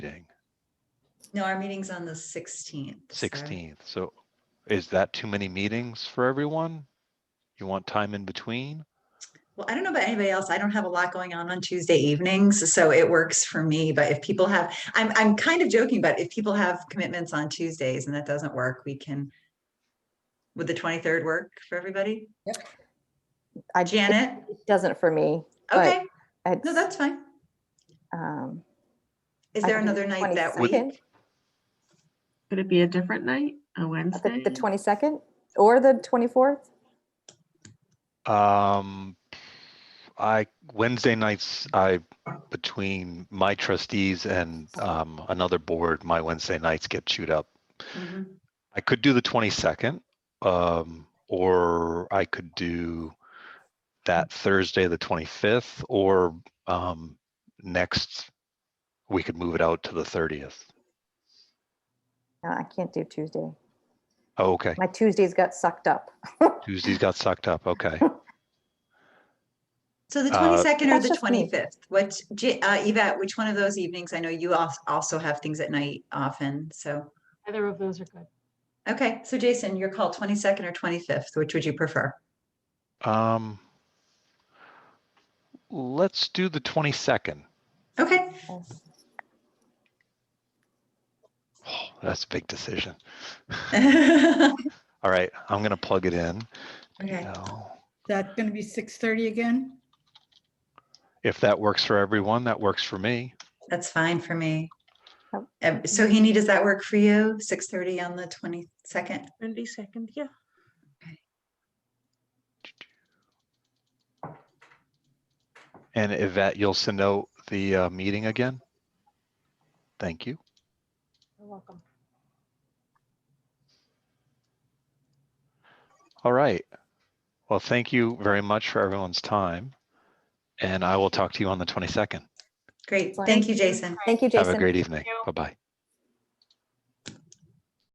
meeting, No, our meeting's on the sixteenth. sixteenth. So is that too many meetings for everyone? You want time in between? Well, I don't know about anybody else. I don't have a lot going on on Tuesday evenings, so it works for me. But if people have, I'm, I'm kind of joking, but if people have commitments on Tuesdays and that doesn't work, we can. Would the twenty-third work for everybody? Uh, I Janet? it doesn't for me. but Okay, it's, no, that's fine. um, Is I there can do another night that 22nd. week? Could it be a different night, a I Wednesday? think the twenty second or the twenty fourth. Um, I, Wednesday nights, I, between my trustees and, um, another board, my Wednesday nights get chewed up. Mhm. I could do the twenty-second, um, or I could do that Thursday, the twenty-fifth, or, um, next, we could move it out to the thirtieth. No, I can't do Tuesday. Oh, okay. My Tuesdays got sucked up. Tuesdays got sucked up. Okay. So the Uh, twenty-second or That's the just me. twenty-fifth, what, J- uh, Yvette, which one of those evenings? I know you al- also have things at night often, so. Either of those are good. Okay, so Jason, your call, twenty-second or twenty-fifth, which would you prefer? Um, let's do the twenty-second. Okay, That's a big decision. Okay. All right, I'm gonna plug it in. now. That's going to be 6:30 again? If that works for everyone, that works for me. That's fine for me. Oh. Um, So Heaney, does that work for you? Six thirty on the twenty-second? Twenty second, yeah. And Yvette, you'll send out the uh, meeting again? Thank you. You're welcome. All right. Well, thank you very much for everyone's time. And I will talk to you on the twenty-second. Great, Fine. thank you, Jason. Thank you, Have a Jason. great evening. you. Bye-bye.